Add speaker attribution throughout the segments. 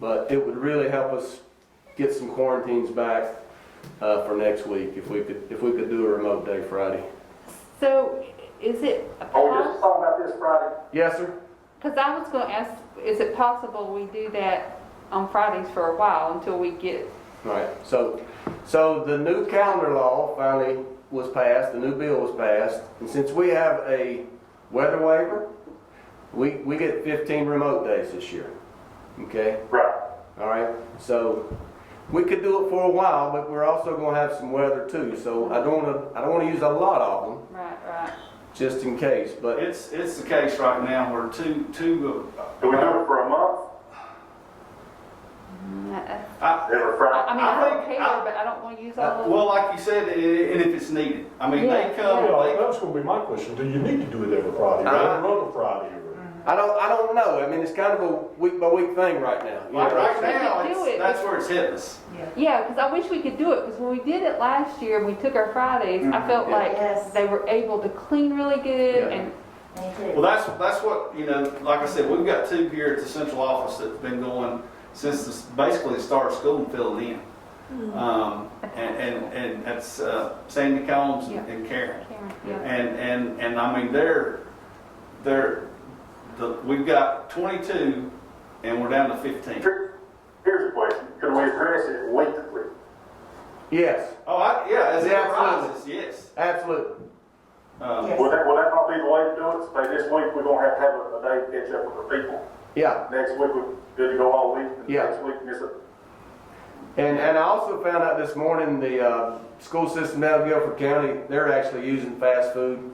Speaker 1: But it would really help us get some quarantines back uh, for next week if we could, if we could do a remote day Friday.
Speaker 2: So is it a
Speaker 3: Oh, you're
Speaker 2: pos-
Speaker 3: just talking about this Friday?
Speaker 1: Yes, sir?
Speaker 2: Cause I was gonna ask, is it possible we do that on Fridays for a while until we get,
Speaker 1: All right, so, so the new calendar law finally was passed, the new bill was passed, and since we have a weather waiver, we, we get 15 remote days this year, okay?
Speaker 3: Right.
Speaker 1: All right, so we could do it for a while, but we're also gonna have some weather too, so I don't wanna, I don't wanna use a lot of them,
Speaker 2: right, right?
Speaker 1: just in case, but
Speaker 4: It's, it's the case right now where two, two, of-
Speaker 3: Do we do it for a month?
Speaker 2: I,
Speaker 4: I,
Speaker 3: Every
Speaker 2: I I
Speaker 3: Friday?
Speaker 2: mean, I
Speaker 4: I
Speaker 2: don't
Speaker 4: think-
Speaker 2: care,
Speaker 4: I-
Speaker 2: but I don't wanna use all of them.
Speaker 4: well, like you said, i- i- and if it's needed, I mean,
Speaker 2: Yeah,
Speaker 4: they come,
Speaker 5: Yeah,
Speaker 4: they,
Speaker 5: that's gonna be my question, do you need to do it every Friday, or
Speaker 3: Uh-huh.
Speaker 5: every other Friday? or-
Speaker 1: I don't, I don't know, I mean, it's kind of a week by week thing right now. you
Speaker 4: like
Speaker 1: know?
Speaker 4: right now,
Speaker 2: We do
Speaker 4: it's,
Speaker 2: it.
Speaker 4: that's where it's hitting us.
Speaker 2: Yeah, cause I wish we could do it, cause when we did it last year and we took our Fridays, I felt
Speaker 1: yeah.
Speaker 2: like
Speaker 6: Yes.
Speaker 2: they were able to clean really good
Speaker 1: Yeah.
Speaker 2: and,
Speaker 6: Me
Speaker 4: Well,
Speaker 6: too.
Speaker 4: that's, that's what, you know, like I said, we've got two here at the central office that's been going since this- basically the start of school and filling in.
Speaker 2: Mm-hmm.
Speaker 4: Um, and, and, and that's uh, Sandy Combs and-
Speaker 2: Yeah.
Speaker 4: and Karen.
Speaker 2: Karen, yeah.
Speaker 4: And, and, and I mean, they're, they're, the, we've got twenty-two and we're down to fifteen.
Speaker 3: Here- Here's the question, can we address it weekly?
Speaker 1: Yes,
Speaker 4: Oh, I, yeah, as it
Speaker 1: Yeah, absolutely.
Speaker 4: rises, yes.
Speaker 1: absolutely.
Speaker 4: Um,
Speaker 6: Yes.
Speaker 3: Will that, will that not be the way to do it? Say this week, we're gonna have to have a- a day to catch up with the people.
Speaker 1: Yeah,
Speaker 3: Next week, we're good to go all week, and
Speaker 1: Yeah.
Speaker 3: next week, miss a,
Speaker 1: and, and I also found out this morning, the, uh, school system down in Guilford County, they're actually using fast food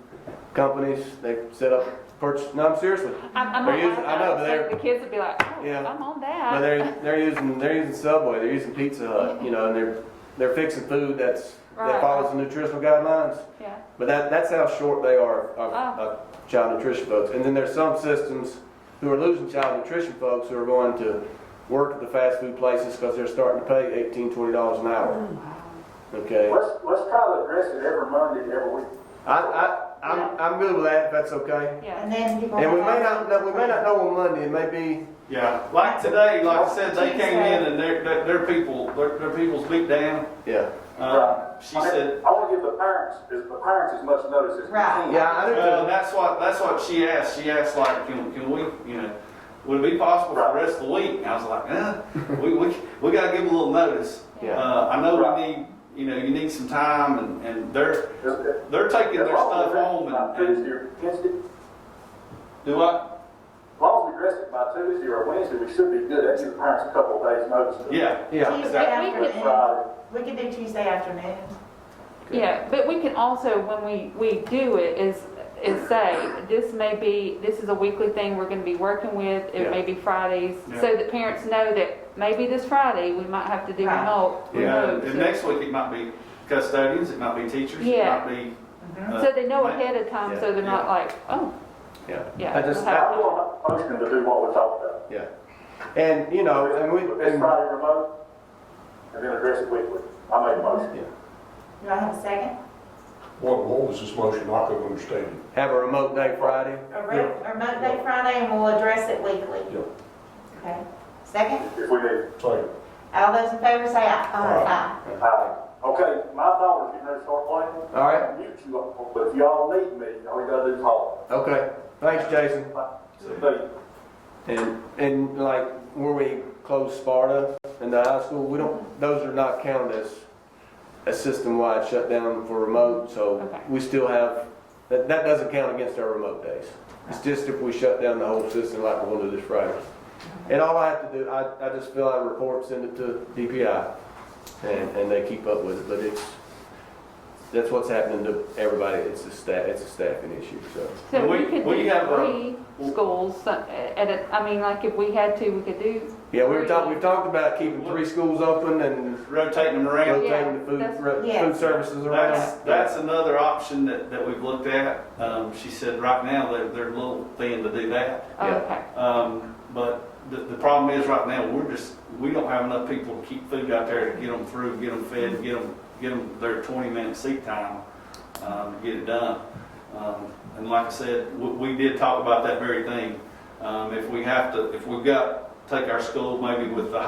Speaker 1: companies, they set up, purchase, no, I'm seriously.
Speaker 2: I, I
Speaker 1: They're
Speaker 2: might
Speaker 1: using- I
Speaker 2: laugh
Speaker 1: know,
Speaker 2: out,
Speaker 1: but
Speaker 2: like
Speaker 1: they're,
Speaker 2: the kids would be like, oh,
Speaker 1: Yeah.
Speaker 2: I'm on
Speaker 1: But
Speaker 2: that.
Speaker 1: they're, they're using, they're using Subway, they're using Pizza Hut, you know, and they're, they're fixing food that's,
Speaker 2: Right.
Speaker 1: that follows the nutritional guidelines.
Speaker 2: Yeah,
Speaker 1: But that, that's how short they are of, of child nutrition folks. And then there's some systems who are losing child nutrition folks who are going to work at the fast food places because they're starting to pay eighteen, twenty dollars an hour. Okay?
Speaker 3: let's, let's try to address it every Monday, every week.
Speaker 1: I, I, I'm, I'm good with that, if that's okay.
Speaker 2: yeah.
Speaker 6: And then you.
Speaker 1: And we may not, know- we may not know on Monday, it may be,
Speaker 4: yeah, like today, like I said, they came in and their, their, their people, their, their people's beat down.
Speaker 1: yeah.
Speaker 4: Um, she
Speaker 3: I mean,
Speaker 4: said,
Speaker 3: I wanna give the parents, as the parents as much notice as we
Speaker 6: Right.
Speaker 3: can.
Speaker 1: Yeah, I do
Speaker 4: well,
Speaker 1: too.
Speaker 4: that's what, that's what she asked. She asked like, can, can we, you know, would it be possible for the rest of the week? And I was like, eh, we, we, we gotta give a little notice.
Speaker 1: Yeah.
Speaker 4: Uh, I know we need, you know, you need some time and, and they're,
Speaker 3: As- as-
Speaker 4: they're taking
Speaker 3: as
Speaker 4: their
Speaker 3: long as
Speaker 4: stuff
Speaker 3: we address
Speaker 4: home
Speaker 3: it by
Speaker 4: and, and
Speaker 3: Tuesday or Wednesday,
Speaker 4: do what?
Speaker 3: As long as we address it by Tuesday or Wednesday, we should be good, that gives the parents a couple of days notice.
Speaker 4: Yeah.
Speaker 1: Yeah,
Speaker 6: Tuesday
Speaker 2: Exactly.
Speaker 6: afternoon.
Speaker 3: Friday.
Speaker 6: We could do Tuesday afternoon.
Speaker 2: Yeah, but we can also, when we, we do it, is, is say, this may be, this is a weekly thing we're gonna be working with, it may be Fridays,
Speaker 4: Yeah.
Speaker 2: so that parents know that maybe this Friday, we might have to do
Speaker 6: Right.
Speaker 2: remote.
Speaker 4: You know,
Speaker 2: remote,
Speaker 4: and
Speaker 2: so-
Speaker 4: next week it might be custodians, it might be teachers, it
Speaker 2: Yeah.
Speaker 4: might be. uh,
Speaker 2: So they know ahead of time, so
Speaker 1: Yeah,
Speaker 2: they're not like, oh,
Speaker 1: yeah.
Speaker 2: Yeah.
Speaker 1: I just, I-
Speaker 3: I want a motion to do what we talked about.
Speaker 1: yeah. And, you know, Oh, and we,
Speaker 3: It's
Speaker 1: and
Speaker 3: Friday remote, and then address it weekly. I make a motion.
Speaker 6: Do I have a second?
Speaker 5: What, what was this motion, I couldn't understand it.
Speaker 1: have a remote day Friday.
Speaker 6: Or re- or Monday, Friday, and we'll address it weekly?
Speaker 5: Yeah.
Speaker 6: Okay. Second?
Speaker 3: if we need.
Speaker 5: Second.
Speaker 6: All those in favor say aye.
Speaker 5: Aye.
Speaker 6: Aye.
Speaker 3: Uh, Okay, my daughter's getting ready to start playing.
Speaker 1: All right.
Speaker 3: Mute you up, but if y'all need me, all you gotta do is holler.
Speaker 1: Okay, thanks, Jason.
Speaker 3: So,
Speaker 1: And, and like where we closed Sparta and the high school, we don't, those are not counted as a system-wide shutdown for remote, so
Speaker 2: Okay.
Speaker 1: we still have, that, that doesn't count against our remote days. It's just if we shut down the whole system like we're gonna do this Friday. And all I have to do, I, I just fill out a report, send it to DPI, and, and they keep up with it, but it's, that's what's happening to everybody, it's a staff, it's a staffing issue, so.
Speaker 2: so we
Speaker 4: We-
Speaker 2: could
Speaker 4: we
Speaker 2: do
Speaker 4: have a-
Speaker 2: three schools, so- at, a- I mean, like if we had to, we could do.
Speaker 1: Yeah, we were talking, we've talked about keeping three schools open and
Speaker 4: Rotating them around.
Speaker 1: rotating the food,
Speaker 2: Yeah, that's-
Speaker 1: ro-
Speaker 6: yeah.
Speaker 1: food services
Speaker 4: That's,
Speaker 1: around.
Speaker 4: that's another option that, that we've looked at. Um, she said right now, they're, they're a little thin to do that.
Speaker 2: oh,
Speaker 1: Yeah.
Speaker 2: Okay,
Speaker 4: Um, but the, the problem is right now, we're just, we don't have enough people to keep food out there to get them through, get them fed, get them, get them their twenty minute seat time, um, to get it done. Um, and like I said, we, we did talk about that very thing. Um, if we have to, if we've got take our school maybe with the